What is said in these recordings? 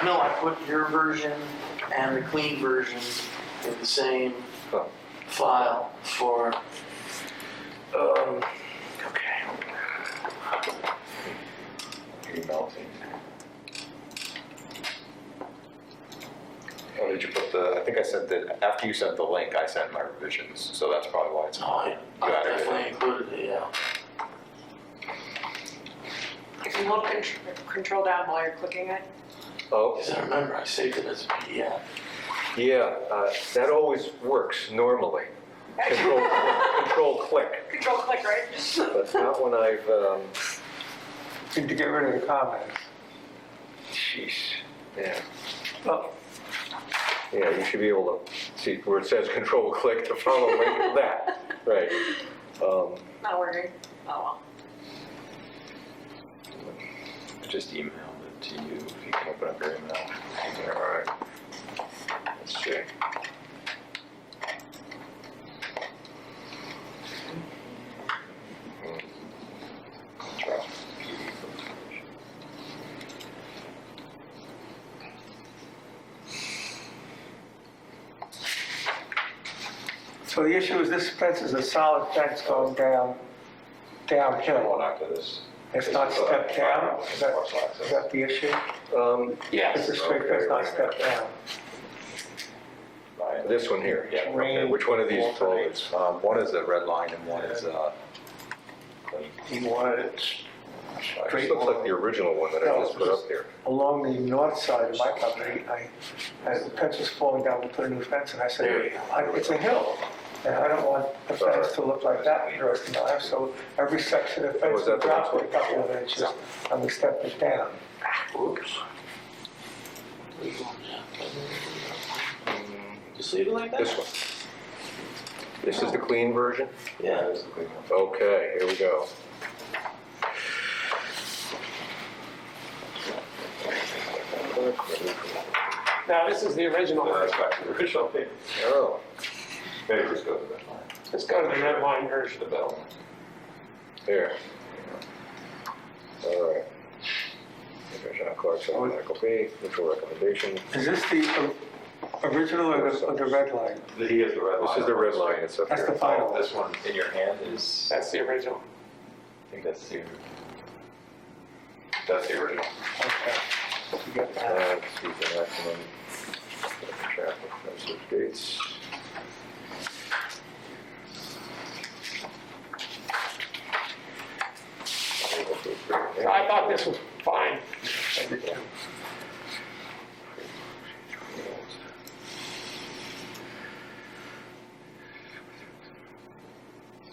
I know I put your version and the clean version in the same Cool. file for, um, okay. You're melting. Oh, did you put the, I think I sent that, after you sent the link, I sent my revisions, so that's probably why it's No, not. I I Got it. definitely included it, yeah. If you hold con- control down while you're clicking it, Oh, Because I remember I saved it as a PDF. Yeah, uh, that always works normally. Control, control click, control click, right? but not when I've, um, Need to get rid of the comments. jeez, yeah. Oh. Yeah, you should be able to see where it says control click to follow link, that, right. Um, Not working. Oh, I just emailed it to you, if you can open up your email. Alright. Let's check. So the issue is this fence is a solid fence going down, downhill. One after this. It's not stepped down, is that, is that the issue? um, Yeah. It's a straight fence, not stepped down. This one here, Yeah, okay, which one of these folds? folds? Um, one is a red line and one is uh. You want it This looks like the original one that I just put up there. along the north side of my property, I, as the fence was falling down, we put a new fence, and I There you said, go. "I- it's a hill, and I don't want the fence to look like that for the rest of my life, so every section of fence Was that the dropped one? a couple of inches, and we stepped it down. Oops. Mm-hmm. Just leave it like This one. This is the clean version? Yeah. That is the green one. Okay, here we go. Now, this is the original, No, that's back to the original thing. Oh, Maybe just go to the red line. let's go to the red line version. The bell. there. All right. Commissioner Clarkson, Michael B., neutral recommendation. Is this the o- original or the, or the red line? He is the red line. Oh, This is the red line, it's up That's the here. final. This one in your hand is. That's the original. I think that's the. That's the original. Okay. You got that. Uh, excuse the maximum traffic message gates. I thought this was fine.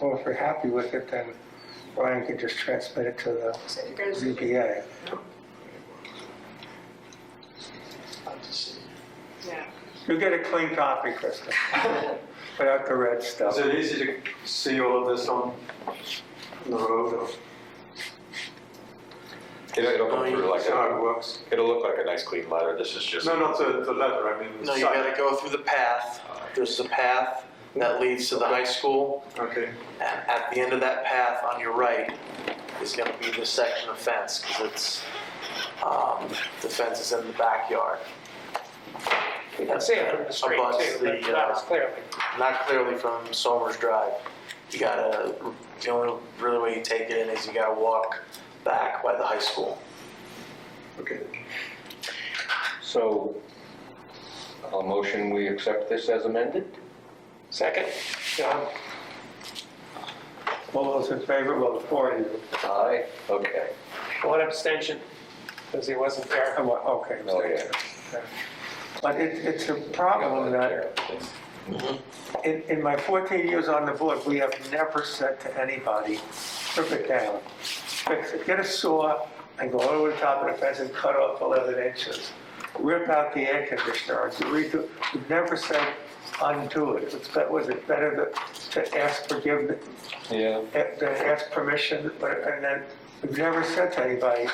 Well, if we're happy with it, then Ryan could just transmit it to the so you guys, ZBA. yeah. You'll get a clean copy, Krista, without the red stuff. Is it easy to see all of this on the road or It'll, it'll come through like how a, it works? it'll look like a nice clean letter. This is just. No, not the, the letter, I mean the No, you site. gotta go through the path. There's the path that leads to the high school. Okay, And at the end of that path on your right is gonna be the section of fence, because it's, um, the fence is in the backyard. You can see it from the street Abuts too, but the, not uh, as clearly. not clearly from Somers Drive. You gotta, the only really way you take it in is you gotta walk back by the high school. okay. So, a motion, we accept this as amended? Second, John, All those in favor, well, four of you. Aye. Okay. one abstention, because he wasn't there. Oh, well, Okay. Oh, yeah. But it, it's a problem that, in, in my 14 years on the board, we have never said to anybody, strip it down. Fix it, get a saw and go over the top of the fence and cut off 11 inches. Rip out the air conditioner, or redo, we've never said undo it. It's, bet- was it better to, to ask forgiveness, Yeah. that that ask permission, but, and then, we've never said to anybody,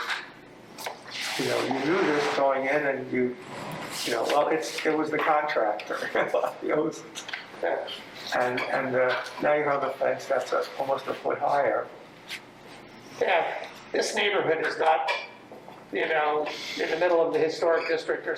you know, you knew this going in and you, you know, well, it's, it was the contractor. It was- And, and uh, now you have a fence that's uh, almost a foot higher. Yeah, this neighborhood is not you know, in the middle of the historic district or